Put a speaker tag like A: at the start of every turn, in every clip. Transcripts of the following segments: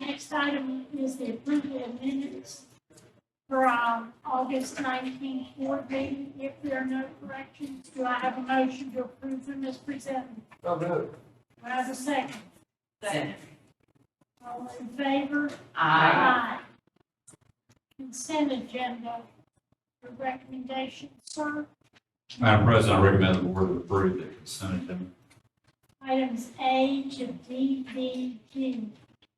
A: next item is the approval of minutes from August nineteenth board meeting. If there are no corrections, do I have a motion to approve them as presented?
B: So moved.
A: Do I have a second?
C: Second.
A: All in favor?
C: Aye.
A: Consent agenda, the recommendation, sir.
D: Madam President, I recommend the board approve the consent agenda.
A: Items A to D, D, G.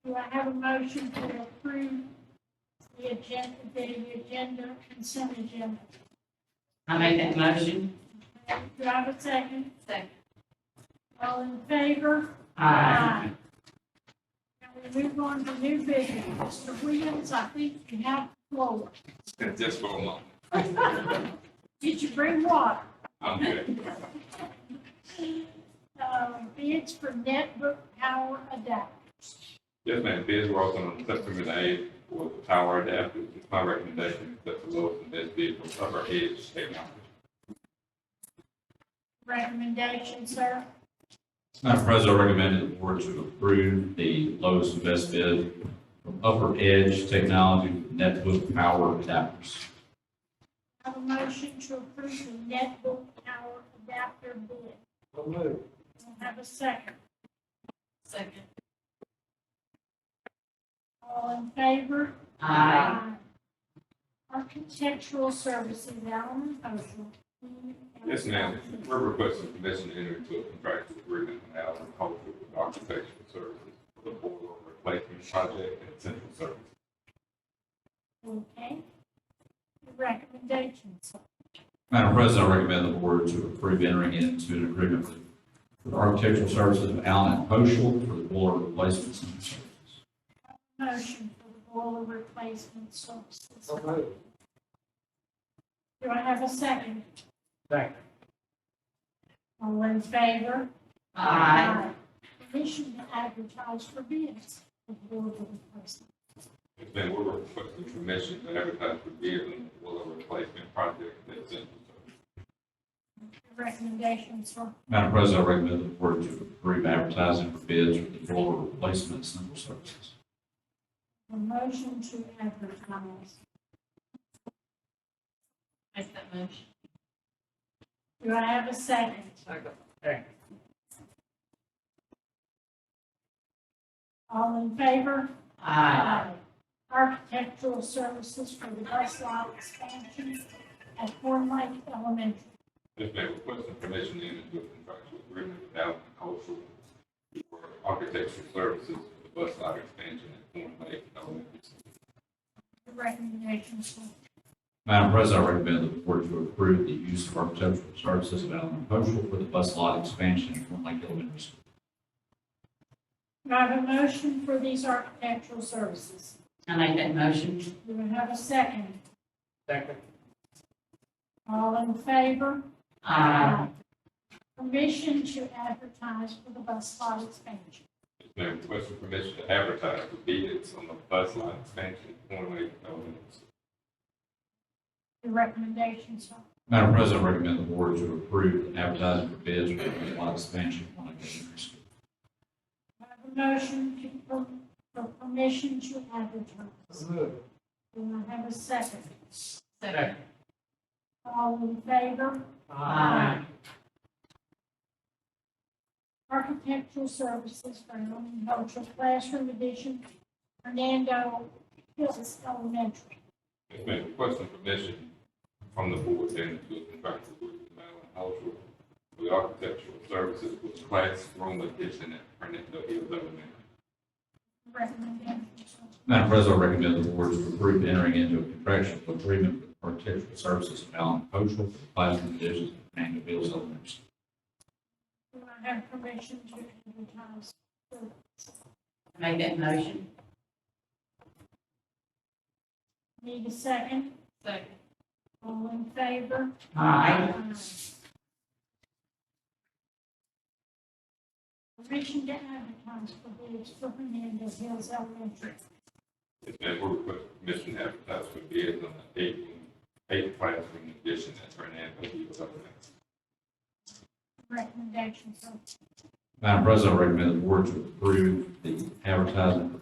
A: Do I have a motion to approve the agenda, the agenda, consent agenda?
C: I make that motion.
A: Do I have a second?
C: Second.
A: All in favor?
C: Aye.
A: Now we move on to new business. Mr. Williams, I think you have the floor.
E: Just for a moment.
A: Did you bring water?
E: I'm good.
A: Um, Bids for netbook power adapter.
E: Yes, ma'am. Biz Ross on September eighth for the power adapter. It's my recommendation to accept the lowest and best bid from Upper Edge Technology.
A: Recommendation, sir.
D: Madam President, I recommend the board to approve the lowest and best bid from Upper Edge Technology Netbook Power Adapters.
A: Have a motion to approve the netbook power adapter bid.
B: So moved.
A: Don't have a second.
C: Second.
A: All in favor?
C: Aye.
A: Architectural services, Alan Oshel.
E: Yes, ma'am. We're requesting permission to enter into a contractual agreement with Allen Culture with Architectural Services for the boiler replacement project at Central Service.
A: Okay. Recommendations.
D: Madam President, I recommend the board to approve entering into an agreement with- with Architectural Services of Allen and Oshel for the boiler replacement services.
A: Motion for the boiler replacement services.
B: So moved.
A: Do I have a second?
B: Second.
A: All in favor?
C: Aye.
A: Permission to advertise for bids for board replacement.
E: Yes, ma'am. We're requesting permission to advertise for bid on the boiler replacement project at Central Service.
A: Recommendations for
D: Madam President, I recommend the board to approve advertising for bids for the boiler replacement central services.
A: a motion to advertise.
C: Make that motion.
A: Do I have a second?
B: Second.
A: All in favor?
C: Aye.
A: Architectural services for the bus lot expansion at Horn Lake Elementary.
E: Yes, ma'am, requesting permission to enter into a contractual agreement with Allen Cultural for architectural services for the bus lot expansion at Horn Lake Elementary.
A: Recommendations for
D: Madam President, I recommend the board to approve the use of architectural services of Allen and Oshel for the bus lot expansion at Horn Lake Elementary School.
A: Do I have a motion for these architectural services?
C: I make that motion.
A: Do I have a second?
B: Second.
A: All in favor?
C: Aye.
A: Permission to advertise for the bus lot expansion.
E: Yes, ma'am, requesting permission to advertise for bids on the bus lot expansion at Horn Lake Elementary.
A: The recommendations are,
D: Madam President, I recommend the board to approve advertising for bids for the bus lot expansion at Horn Lake Elementary School.
A: Do I have a motion to, for, for permission to advertise.
B: So moved.
A: Do I have a second?
C: Second.
A: All in favor?
C: Aye.
A: Architectural Services for Norman Cultural Classroom Edition, Fernando Hills Elementary.
E: Yes, ma'am, requesting permission from the board to enter into a contractual agreement with Allen Cultural for the architectural services for the classroom addition at Fernando Hills Elementary.
A: Recommendations are,
D: Madam President, I recommend the board to approve entering into a contractual agreement with architectural services of Allen and Oshel for the classroom additions at Fernando Hills Elementary. School.
A: do I have permission to advertise?
C: I make that motion.
A: Need a second?
C: Second.
A: All in favor?
C: Aye.
A: Permission to advertise for bids for Hernando Hills Elementary.
E: Yes, ma'am, we're requesting permission to advertise for bids on the eight, eight classroom addition at Fernando Hills Elementary.
A: Recommendations are
D: Madam President, I recommend the board to approve the advertising for